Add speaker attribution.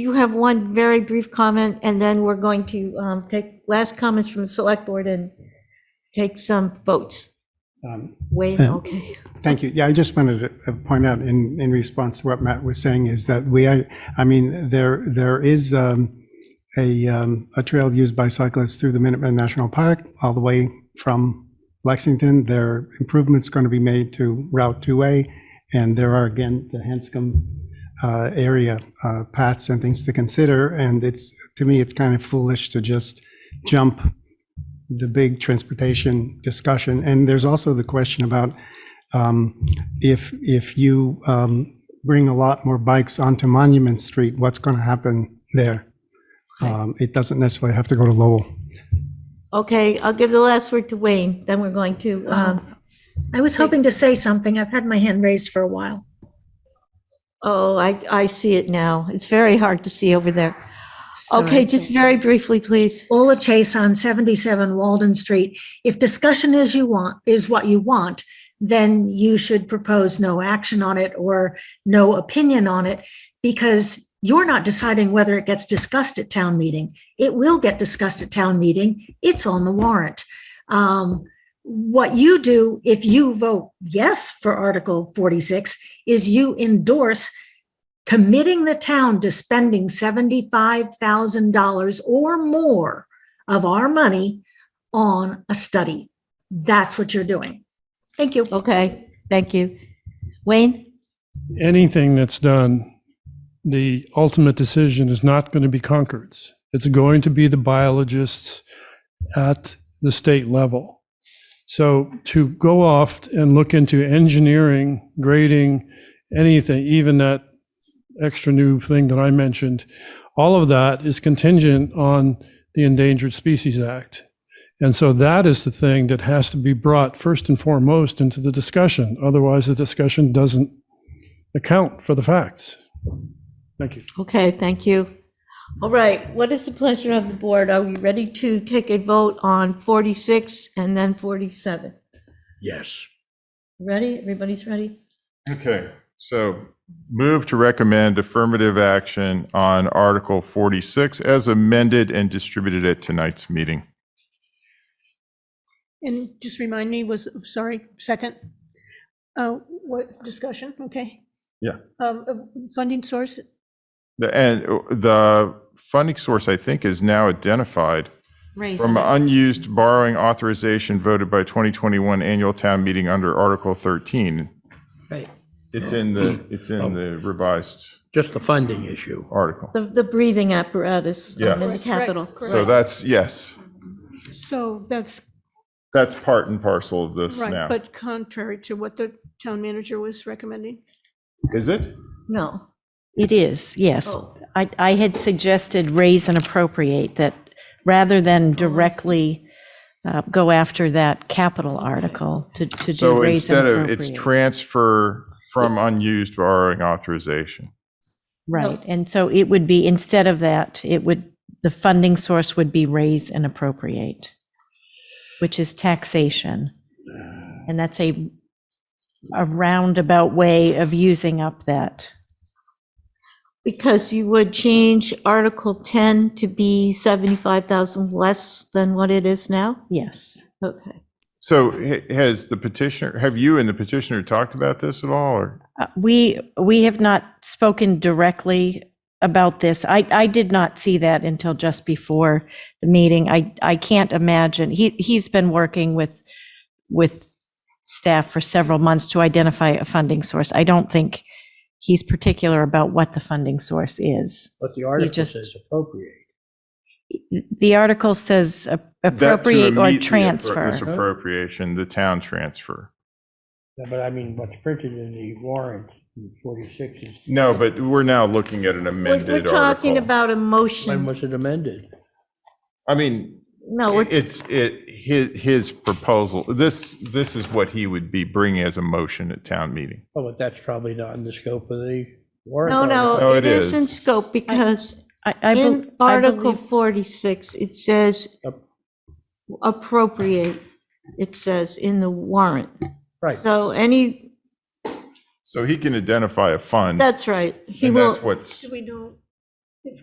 Speaker 1: You have one very brief comment, and then we're going to um, take last comments from the select board and take some votes.
Speaker 2: Um,
Speaker 1: Wayne,
Speaker 2: Um,
Speaker 1: okay.
Speaker 2: Thank you. Yeah, I just wanted to uh, point out in, in response to what Matt was saying is that we, I, I mean, there, there is um, a, um, a trail used by cyclists through the Minuteman National Park all the way from Lexington. There are improvements going to be made to Route 2A, and there are, again, the Hanscom uh, area uh, paths and things to consider. And it's, to me, it's kind of foolish to just jump the big transportation discussion. And there's also the question about um, if, if you um, bring a lot more bikes onto Monument Street, what's going to happen there? Um, It doesn't necessarily have to go to Lowell.
Speaker 1: Okay, I'll give the last word to Wayne, then we're going to, um,
Speaker 3: I was hoping to say something. I've had my hand raised for a while.
Speaker 1: oh, I, I see it now. It's very hard to see over there. Okay, just very briefly, please.
Speaker 3: Ola Chase on 77 Walden Street. If discussion is you want, is what you want, then you should propose no action on it or no opinion on it because you're not deciding whether it gets discussed at town meeting. It will get discussed at town meeting. It's on the warrant. Um, what you do if you vote yes for Article 46 is you endorse committing the town to spending $75,000 or more of our money on a study. That's what you're doing. Thank you.
Speaker 1: Okay, thank you. Wayne?
Speaker 4: anything that's done, the ultimate decision is not going to be Concord's. It's going to be the biologists at the state level. So to go off and look into engineering, grading, anything, even that extra new thing that I mentioned, all of that is contingent on the Endangered Species Act. And so that is the thing that has to be brought first and foremost into the discussion. Otherwise, the discussion doesn't account for the facts. Thank you.
Speaker 1: Okay, thank you. All right, what is the pleasure of the board? Are we ready to take a vote on 46 and then 47?
Speaker 5: Yes.
Speaker 1: Ready? Everybody's ready?
Speaker 6: Okay, so move to recommend affirmative action on Article 46 as amended and distributed at tonight's meeting.
Speaker 7: And just remind me, was, sorry, second, uh, what, discussion, okay?
Speaker 6: Yeah.
Speaker 7: Um, uh, Funding source,
Speaker 6: The- And uh, the funding source, I think, is now identified from unused borrowing authorization voted by 2021 annual town meeting under Article 13.
Speaker 5: Right.
Speaker 6: It's in the, it's in the revised
Speaker 5: Just the funding issue.
Speaker 6: article.
Speaker 1: The, the breathing apparatus um, in the
Speaker 6: Yes.
Speaker 1: capital.
Speaker 6: So that's, yes,
Speaker 7: so that's
Speaker 6: that's part and parcel of this
Speaker 7: right,
Speaker 6: now.
Speaker 7: but contrary to what the town manager was recommending.
Speaker 6: Is it?
Speaker 1: No.
Speaker 8: It is, yes.
Speaker 1: Oh.
Speaker 8: I, I had suggested raise and appropriate that rather than directly uh, go after that capital article to, to do
Speaker 6: So
Speaker 8: raise and
Speaker 6: instead of, it's
Speaker 8: appropriate.
Speaker 6: transfer from unused borrowing authorization.
Speaker 8: Right, and so it would be, instead of that, it would, the funding source would be raise and appropriate, which is taxation. And that's a, a roundabout way of using up that.
Speaker 1: Because you would change Article 10 to be 75,000 less than what it is now?
Speaker 8: Yes,
Speaker 1: Okay.
Speaker 6: So ha- has the petitioner, have you and the petitioner talked about this at all, or?
Speaker 8: Uh, we we have not spoken directly about this. I I did not see that until just before the meeting. I I can't imagine. He he's been working with with staff for several months to identify a funding source. I don't think he's particular about what the funding source is.
Speaker 5: But the article
Speaker 8: just-
Speaker 5: says appropriate.
Speaker 8: The article says a-
Speaker 6: that to
Speaker 8: appropriate or
Speaker 6: immediately appro-
Speaker 8: transfer.
Speaker 6: This appropriation, the town transfer.
Speaker 5: Yeah, But I mean, what's printed in the warrant, in 46 is,
Speaker 6: No, but we're now looking at an
Speaker 1: We're
Speaker 6: amended
Speaker 1: we're
Speaker 6: article.
Speaker 1: talking about a
Speaker 5: when
Speaker 1: motion.
Speaker 5: was it amended?
Speaker 6: I mean,
Speaker 1: No, we're-
Speaker 6: it's, it, his, his proposal, this, this is what he would be bringing as a motion at town meeting.
Speaker 5: Oh, but that's probably not in the scope of the warrant.
Speaker 1: no,
Speaker 6: No,
Speaker 1: no, it
Speaker 6: Oh, it
Speaker 1: is in
Speaker 6: is.
Speaker 1: scope because
Speaker 8: I- I bel-
Speaker 1: in
Speaker 8: I
Speaker 1: Article
Speaker 8: believe-
Speaker 1: 46, it says
Speaker 5: Up.
Speaker 1: appropriate, it says in the warrant.
Speaker 5: Right.
Speaker 1: So any,
Speaker 6: So he can identify a fund,
Speaker 1: that's right. He
Speaker 6: and
Speaker 1: will,
Speaker 6: that's what's,
Speaker 7: Do we know